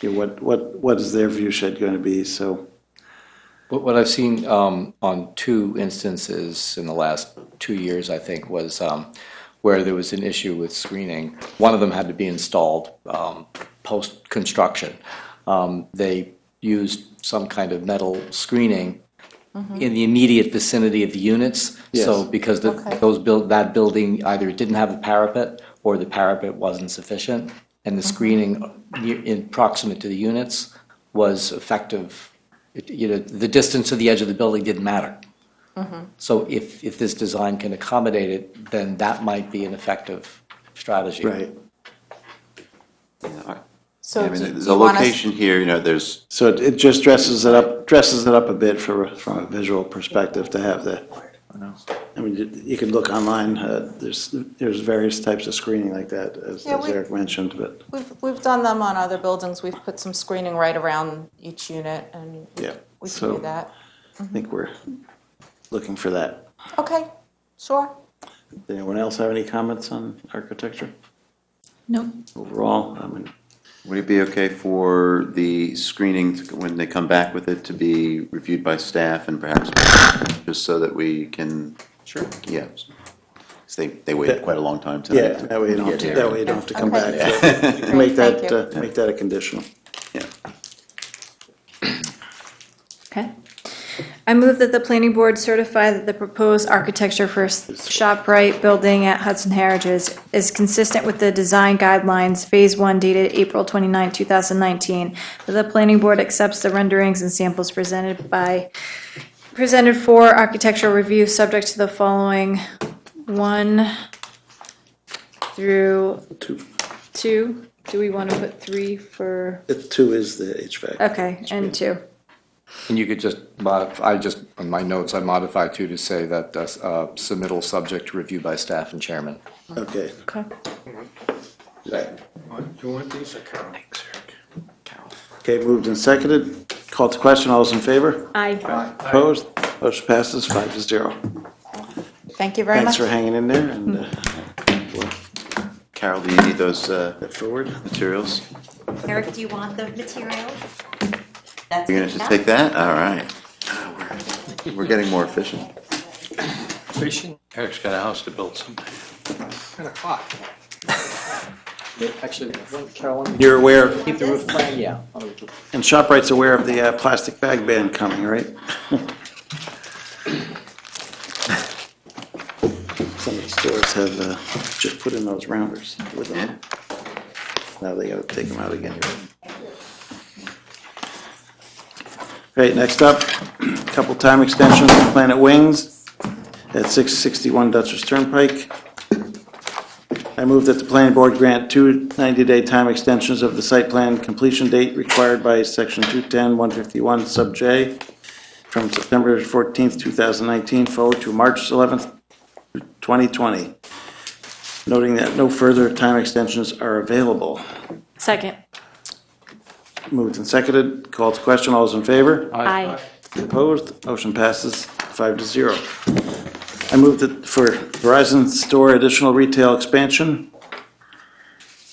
you know, what, what, what is their view shed going to be? So, What, what I've seen um, on two instances in the last two years, I think, was um, where there was an issue with screening. One of them had to be installed um, post construction. Um, they used some kind of metal screening in the immediate vicinity of the units. So Yes. because the, Okay. those build that building either didn't have a parapet or the parapet wasn't sufficient, and the screening near, in proximate to the units was effective. It, you know, the distance to the edge of the building didn't matter. So if if this design can accommodate it, then that might be an effective strategy. right. So I mean, do the- do the you want us- location here, you know, there's, So it, it just dresses it up, dresses it up a bit for, from a visual perspective to have the, I mean, you- you can look online, uh, there's, there's various types of screening like that, as Yeah, as we- Eric mentioned, but, We've, we've done them on other buildings. We've put some screening right around each unit and yeah. we can do So that. I think we're looking for that. Okay, sure. Anyone else have any comments on architecture No, overall? I mean, would it be okay for the screening, to- when they come back with it, to be reviewed by staff and perhaps, just so that we can? Sure. Yeah. 'Cause they, they waited quite a long time tonight. Yeah, that way you don't, have to- that way you don't have to come back. Okay. So Make Thank that, you. uh, make that a conditional. Yeah. okay. I move that the planning board certify that the proposed architecture for ShopRite building at Hudson Heritage is- is consistent with the design guidelines, Phase 1 dated April 29, 2019, that the planning board accepts the renderings and samples presented by, presented for architectural review, subject to the following 1 through Two, 2. Do we want to put 3 for, the two is the HVAC. okay, and 2. And you could just modify. I just on my notes I modify too to say that uh, s- uh, submittal subject to review by staff and chairman. Okay. Okay. Do you want these? Okay, moved and seconded. Call to question, all those in favor? Aye. Opposed? Motion passes five to zero. Thank you very Thanks much. for hanging in there and uh, Carol, do you need those uh, forward. materials? Eric, do you want the materials? That's You're gonna have to take that? All right. We're getting more efficient. Eric's got a house to build someday. Actually, Carolyn, You're aware, keep the roof plan. Yeah. and ShopRite's aware of the uh, plastic bag ban coming, right? Some of the stores have uh, just put in those rounders with them. Now they gotta take them out again. Great, next up, couple time extensions, Planet Wings at 661 Dutchess Turnpike. I move that the planning board grant two 90-day time extensions of the site plan completion date required by section 210, 151, sub J, from September 14th, 2019 forward to March 11th, 2020, noting that no further time extensions are available. Second. Moved and seconded, called to question, all those in favor? Aye. Opposed, motion passes five to zero. I move that for Verizon Store additional retail expansion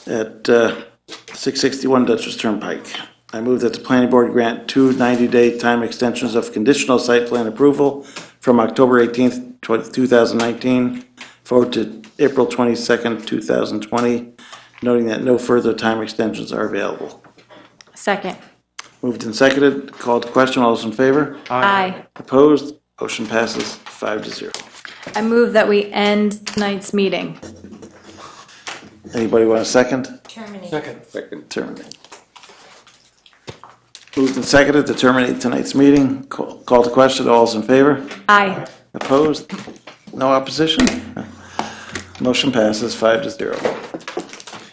at uh, 661 Dutchess Turnpike. I move that the planning board grant two 90-day time extensions of conditional site plan approval from October 18th, tw- 2019, forward to April 22nd, 2020, noting that no further time extensions are available. Second. Moved and seconded, called to question, all those in favor? Aye. Opposed, motion passes five to zero. I move that we end tonight's meeting. Anybody want a second? Terminate. Second. Terminate. Moved and seconded to terminate tonight's meeting. Call call to question, all's in favor? Aye. Opposed? No opposition? Motion passes five to zero.